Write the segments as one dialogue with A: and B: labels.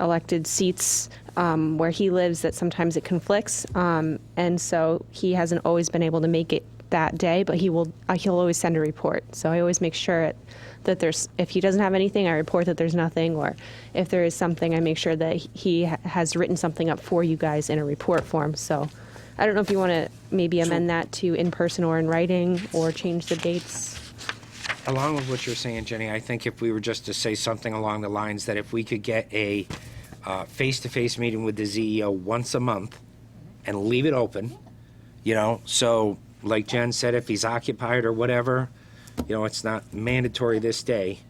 A: elected seats um, where he lives that sometimes it conflicts, um, and so he hasn't always been able to make it that day. But he will. Uh, he'll always send a report. So I always make sure it, that there's. If he doesn't have anything, I report that there's nothing, or if there is something, I make sure that he ha- has written something up for you guys in a report form. So. I don't know if you want to maybe amend that to in person or in writing or change the dates.
B: Along with what you're saying, Jenny, I think if we were just to say something along the lines that if we could get a uh, face-to-face meeting with the CEO once a month and leave it open, you know, so like Jen said, if he's occupied or whatever, you know, it's not mandatory this day.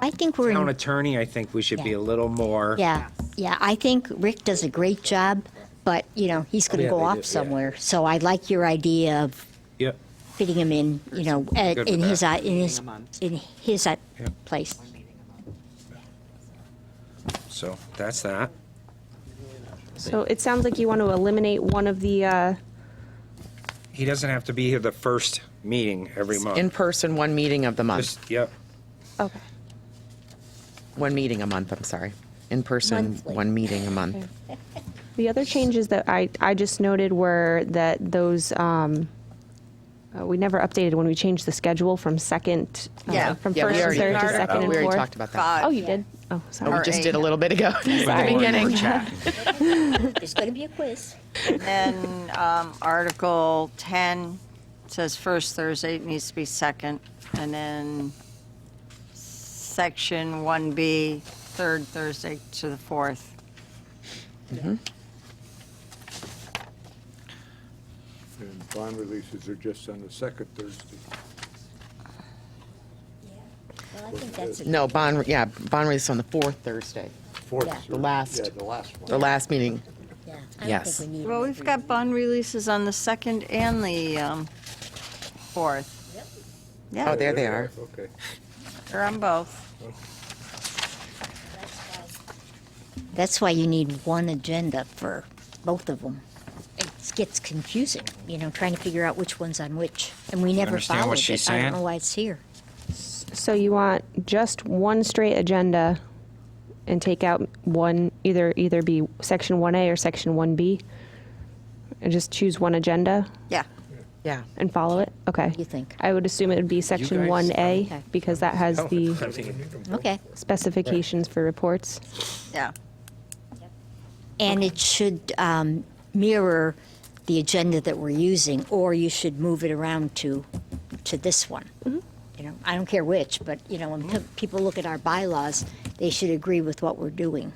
C: I think we're
B: Town
C: in,
B: attorney, I think we should be
C: Yeah.
B: a little more.
C: yeah, yeah. I think Rick does a great job, but you know he's going to
B: Oh, Yeah,
C: go
B: they
C: off
B: do, yeah.
C: somewhere. So I like your idea of
B: Yep.
C: fitting him in, you know, at,
B: Good
C: in,
B: with
C: his, uh, in his
D: a month.
C: in his uh,
B: Yeah.
C: place.
B: So that's that.
A: So it sounds like you want to eliminate one of the, uh,
B: He doesn't have to be here the first meeting every month.
D: In person, one meeting of the month,
B: Just- Yep.
A: okay.
D: one meeting a month, I'm sorry. In person,
C: Monthly.
D: one meeting a month.
A: The other changes that I, I just noted were that those, um, uh, we never updated when we changed the schedule from second, uh,
E: Yeah.
A: from
D: Yeah, we
A: first and
D: already-
A: third to second
D: We
A: and
D: already talked
A: fourth.
D: about that.
A: Oh, you did? Oh,
D: We
A: sorry.
D: just
E: eight.
D: did a little bit ago, at the
A: Sorry.
D: beginning.
C: There's going to be a quiz.
E: Then um, Article 10 says first Thursday, it needs to be second. And then Section 1B, third Thursday to the fourth.
F: And bond releases are just on the second Thursday.
C: Well, I think that's a,
D: No, bond, yeah, bond release on the fourth Thursday,
F: Fourth.
C: Yeah.
F: Thursday.
D: last.
F: Yeah, the last one.
D: the last meeting.
C: yeah. I don't
D: Yes.
C: think we need
E: Well,
C: it.
E: we've got bond releases on the second and the um, fourth.
D: Oh,
E: Yeah,
D: there they are.
F: Okay.
E: they're on both.
C: That's why you need one agenda for both of them. It gets confusing, you know, trying to figure out which one's on which, and we never
B: understand what
C: followed
B: she's
C: it. I
B: saying?
C: don't know why it's here.
A: So you want just one straight agenda and take out one, either, either be section 1A or section 1B? And just choose one agenda
E: Yeah.
D: Yeah.
A: and follow it? Okay.
C: You think?
A: I would assume it would be section
B: guys-
A: 1A
C: Okay.
A: because that has
B: I
A: the
B: mean,
C: Okay.
A: specifications for reports.
E: Yeah.
C: And it should um, mirror the agenda that we're using, or you should move it around to, to this one.
D: Mm-hmm.
C: You know, I don't care which, but, you know, when pe- people look at our bylaws, they should agree with what we're doing.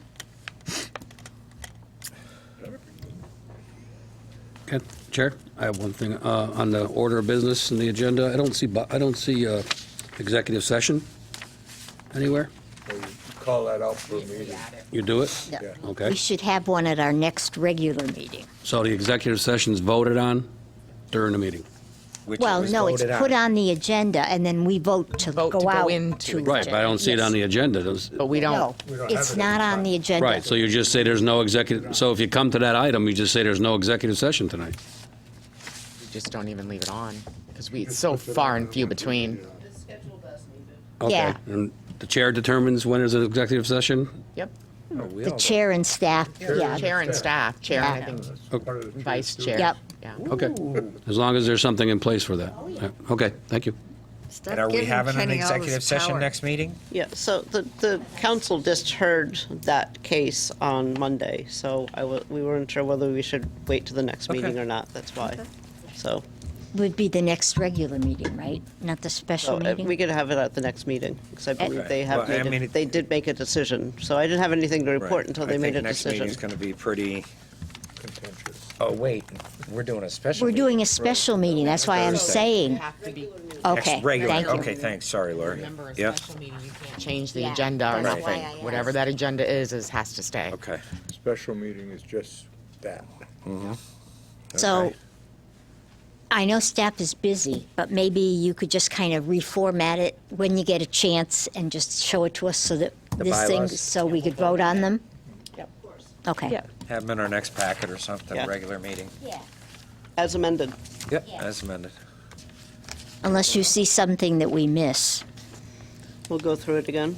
G: Okay, Chair, I have one thing uh, on the order of business and the agenda. I don't see, bu- I don't see uh, executive session anywhere.
F: So you Call that out for a meeting.
G: You do it?
C: Yeah.
G: Okay.
C: We should have one at our next regular meeting.
G: So the executive session's voted on during the meeting.
B: which
C: Well,
B: was
C: no, it's
B: voted
C: put on the agenda, and then we vote to
D: Vote to
C: go
D: go
C: out.
D: into
C: to
D: it.
G: Right, but I don't see it on the agenda. Does-
D: But we don't,
C: No, it's not on the agenda.
G: Right, so you just say there's no executive, so if you come to that item, you just say there's no executive session tonight.
D: we just don't even leave it on because we, it's so far and few between.
G: Okay.
C: Yeah.
G: And the chair determines when is an executive session?
D: Yep.
C: The chair and staff, yeah.
D: Chair and staff, chair and I
C: Yeah.
D: think
F: Part of the
D: vice chair.
C: Yep.
D: Yeah.
G: Okay. As long as there's something in place for that. Yeah, Okay, thank you.
E: Stop
B: And are we
E: giving
B: having an
E: Kenny all this
B: executive session
E: power.
B: next meeting?
H: Yeah, so the, the council just heard that case on Monday, so I, wa- we weren't sure whether we should wait to the next meeting or not, that's why. So,
C: Would be the next regular meeting, right? Not the
H: so
C: special
H: uh,
C: meeting?
H: we could have it at the next meeting, because I believe they have,
B: Well, I
H: made
B: mean, it-
H: it- they did make a decision. So I didn't have anything to report until they made a
B: I think next
H: decision.
B: meeting's going to be pretty,
F: contentious.
B: oh, wait, we're doing a special.
C: We're
B: meeting.
C: doing a special meeting, that's why I'm
B: Thursday.
C: saying,
D: Have to be,
B: Next
C: okay,
B: regular.
C: thank you.
B: Okay, thanks, sorry, Lori.
D: remember a
B: Yep,
D: special meeting, you can't change the
C: Yeah,
D: agenda or
C: that's why
D: nothing.
C: I
D: Whatever
C: asked.
D: that agenda is, is, has to stay.
B: okay.
F: Special meeting is just that.
C: So,
B: Okay.
C: I know staff is busy, but maybe you could just kind of reformat it when you get a chance and just show it to us so that this thing,
B: bylaws?
C: so we could vote on them? Okay.
A: Yeah.
B: Have them in our next packet or something,
H: Yeah.
B: regular meeting.
H: As amended.
B: Yep, as amended.
C: Unless you see something that we miss.
H: We'll go through it again.